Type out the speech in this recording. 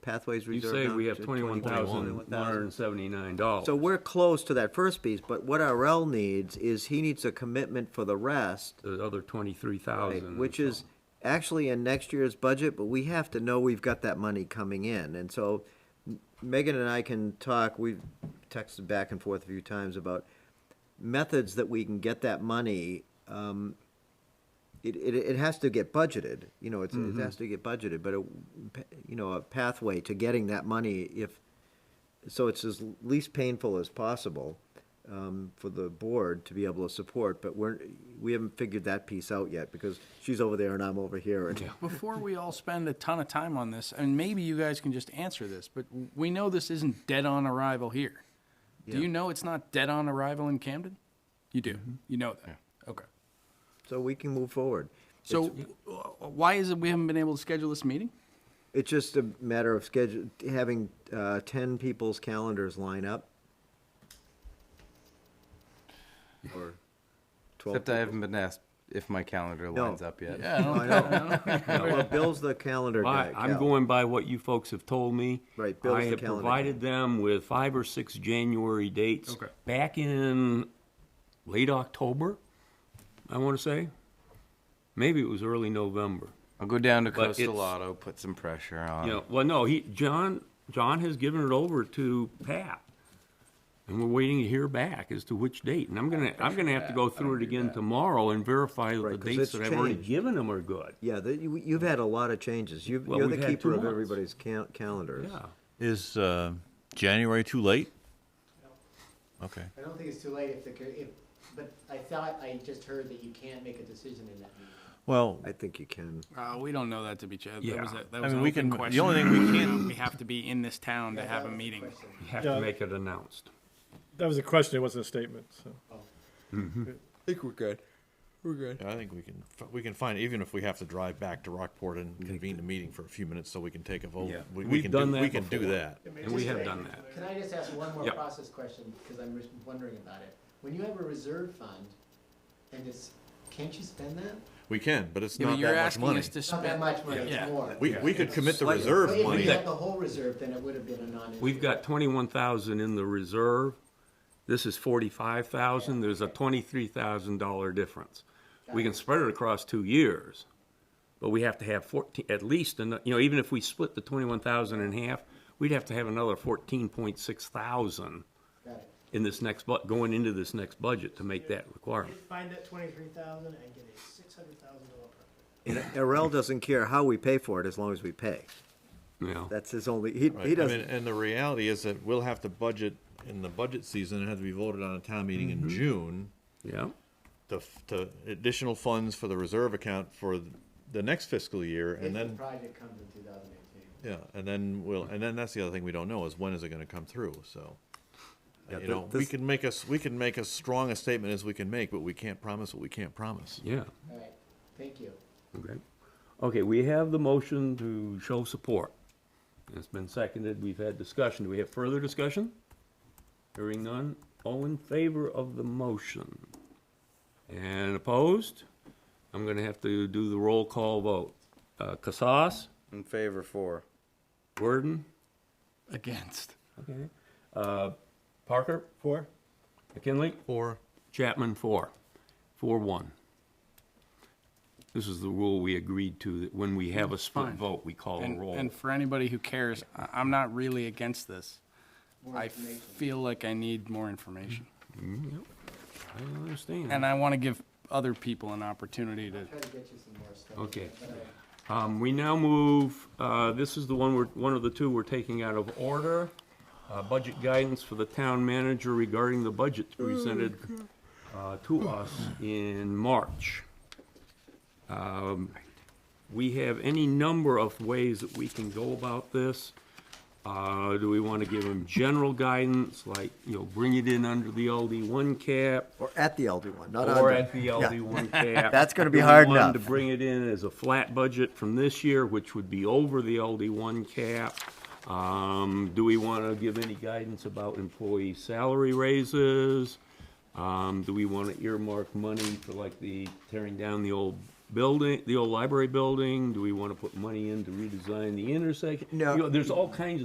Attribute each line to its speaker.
Speaker 1: pathways
Speaker 2: You
Speaker 1: reserved.
Speaker 2: say
Speaker 1: down
Speaker 2: we have
Speaker 1: to
Speaker 2: twenty-one thousand, one hundred
Speaker 1: 21,000.
Speaker 2: and seventy-nine dollars.
Speaker 1: So we're close to that first piece, but what RL needs is he needs a commitment for the rest,
Speaker 2: The other twenty-three
Speaker 1: right,
Speaker 2: thousand.
Speaker 1: which is actually in next year's budget, but we have to know we've got that money coming in. And so Megan and I can talk, we've texted back and forth a few times about methods that we can get that money. um, It, it, it has to get budgeted, you know, it's,
Speaker 3: Mm-hmm.
Speaker 1: it has to get budgeted, but, a- you know, a pathway to getting that money if, so it's as least painful as possible um, for the board to be able to support, but we're, we haven't figured that piece out yet, because she's over there and I'm over here, and
Speaker 4: Before we all spend a ton of time on this, and maybe you guys can just answer this, but we know this isn't dead on arrival here.
Speaker 1: Yeah.
Speaker 4: Do you know it's not dead on arrival in Camden? You do.
Speaker 5: Mm-hmm.
Speaker 4: You know that. Okay.
Speaker 1: so we can move forward.
Speaker 4: So w- why is it we haven't been able to schedule this meeting?
Speaker 1: It's just a matter of schedule, having uh, ten people's calendars line up. Or twelve.
Speaker 3: Except I haven't been asked if my calendar
Speaker 1: No.
Speaker 3: lines up yet.
Speaker 4: Yeah, I don't,
Speaker 1: I know. Well, Bill's the calendar guy.
Speaker 2: I'm
Speaker 1: Cal.
Speaker 2: going by what you folks have told me.
Speaker 1: Right, Bill's
Speaker 2: I
Speaker 1: the
Speaker 2: have
Speaker 1: calendar
Speaker 2: provided them with five or six January dates.
Speaker 4: Okay.
Speaker 2: Back in late October, I want to say. Maybe it was early November.
Speaker 3: I'll go down to
Speaker 2: But
Speaker 3: Coastal
Speaker 2: it's-
Speaker 3: Auto, put some pressure on.
Speaker 2: You know, well, no, he, John, John has given it over to Pat. And we're waiting to hear back as to which date. And I'm gonna, I'm gonna have to go through it again tomorrow and verify that the
Speaker 1: Right, 'cause
Speaker 2: dates
Speaker 1: it's
Speaker 2: that I've already
Speaker 1: changed.
Speaker 2: given him are good.
Speaker 1: Yeah, the- you, you've had a lot of changes. You've,
Speaker 2: Well,
Speaker 1: you're the
Speaker 2: we've had two
Speaker 1: keeper of
Speaker 2: months.
Speaker 1: everybody's cal- calendars.
Speaker 2: Yeah.
Speaker 5: Is uh, January too late? Okay.
Speaker 6: I don't think it's too late if the, co- if, but I thought, I just heard that you can't make a decision in that meeting.
Speaker 5: Well,
Speaker 1: I think you can.
Speaker 4: uh, we don't know that to be Chad. That was a,
Speaker 2: Yeah.
Speaker 4: that was
Speaker 5: mean,
Speaker 4: an
Speaker 5: we
Speaker 4: open
Speaker 5: can- the
Speaker 4: question. Um,
Speaker 5: only thing we can't-
Speaker 4: We have to be in this town to have a meeting.
Speaker 2: You have to make it announced.
Speaker 7: That was a question, it wasn't a statement, so.
Speaker 5: I think we can we can find even if we have to drive back to Rockport and convene the meeting for a few minutes so we can take a vote.
Speaker 2: Yeah.
Speaker 5: We, we
Speaker 2: We've
Speaker 5: can
Speaker 2: done
Speaker 5: do,
Speaker 2: that
Speaker 5: We can do
Speaker 2: before.
Speaker 5: that.
Speaker 2: And we have done that.
Speaker 6: Can I just ask one more
Speaker 2: Yeah.
Speaker 6: process question, because I'm just wondering about it? When you have a reserve fund, and it's, can't you spend that?
Speaker 5: We can, but it's
Speaker 4: Yeah, but
Speaker 5: not
Speaker 4: you're
Speaker 5: that much
Speaker 4: asking
Speaker 5: money.
Speaker 4: us to
Speaker 6: It's not that
Speaker 4: spend.
Speaker 6: much money,
Speaker 4: Yeah.
Speaker 6: it's more.
Speaker 5: we we could commit the
Speaker 6: But
Speaker 5: reserve
Speaker 6: if
Speaker 5: money.
Speaker 6: we had the whole reserve, then it would have been a non
Speaker 2: We've got twenty-one thousand in the reserve. This is forty-five thousand. There's a twenty-three thousand dollar difference. We can spread it across two years, but we have to have fourteen, at least, ano- you know, even if we split the twenty-one thousand in half, we'd have to have another fourteen point six thousand
Speaker 6: Got it.
Speaker 2: in this next bu, going into this next budget to make that requirement.
Speaker 8: Find that twenty-three thousand and get a six hundred thousand dollar permit.
Speaker 1: And Arel doesn't care how we pay for it as long as we pay.
Speaker 2: You know,
Speaker 1: That's his only, he,
Speaker 5: Right.
Speaker 1: he
Speaker 5: I mean,
Speaker 1: doesn't,
Speaker 5: and the reality is that we'll have to budget in the budget season. It has to be voted on a town meeting
Speaker 4: Mm-hmm.
Speaker 5: in June.
Speaker 2: yeah,
Speaker 5: To, f- to additional funds for the reserve account for th- the next fiscal year,
Speaker 6: If
Speaker 5: and
Speaker 6: the
Speaker 5: then
Speaker 6: project comes in two thousand eighteen.
Speaker 5: Yeah, and then we'll,
Speaker 1: Hmm.
Speaker 5: and then that's the other thing we don't know is when is it gonna come through, so.
Speaker 1: Yeah,
Speaker 5: You
Speaker 1: th-
Speaker 5: know, we
Speaker 1: this-
Speaker 5: can make us, we can make as strong a statement as we can make, but we can't promise what we can't promise.
Speaker 2: yeah,
Speaker 6: All right, thank you.
Speaker 2: okay. Okay, we have the motion to show support. It's been seconded. We've had discussion. Do we have further discussion? Hearing none, all in favor of the motion? And opposed? I'm gonna have to do the roll call vote. Uh, Casas,
Speaker 3: In favor for.
Speaker 2: Worden,
Speaker 4: Against.
Speaker 2: okay, uh, Parker,
Speaker 7: Four?
Speaker 2: McKinley,
Speaker 5: Or,
Speaker 2: Chapman, four, four, one. This is the rule we agreed to, that when we have a split
Speaker 4: Fine.
Speaker 2: vote, we
Speaker 5: Oh,
Speaker 2: call a
Speaker 4: And,
Speaker 2: roll.
Speaker 4: and for anybody who cares, I- I'm not really against this.
Speaker 6: More
Speaker 4: I
Speaker 6: information.
Speaker 4: feel like I need more information.
Speaker 2: I understand.
Speaker 4: And I want to give other people an opportunity to.
Speaker 6: Try to get you some more stuff.
Speaker 2: Okay.
Speaker 6: But, uh,
Speaker 2: Um, we now move, uh, this is the one we're, one of the two we're taking out of order. Uh, budget guidance for the town manager regarding the budget presented, uh, to us in March. Um, we have any number of ways that we can go about this. Uh, do we wanna give them general guidance, like, you know, bring it in under the LD one cap?
Speaker 1: or at the LD one, not
Speaker 2: Or
Speaker 1: under.
Speaker 2: at the LD one cap.
Speaker 1: That's gonna be
Speaker 2: Do we
Speaker 1: hard
Speaker 2: want
Speaker 1: enough.
Speaker 2: To bring it in as a flat budget from this year, which would be over the LD one cap. Um, do we wanna give any guidance about employee salary raises? Um, do we wanna earmark money for like the tearing down the old building, the old library building? Do we want to put money in to redesign the intersection?
Speaker 1: No.
Speaker 2: You know, there's all kinds of.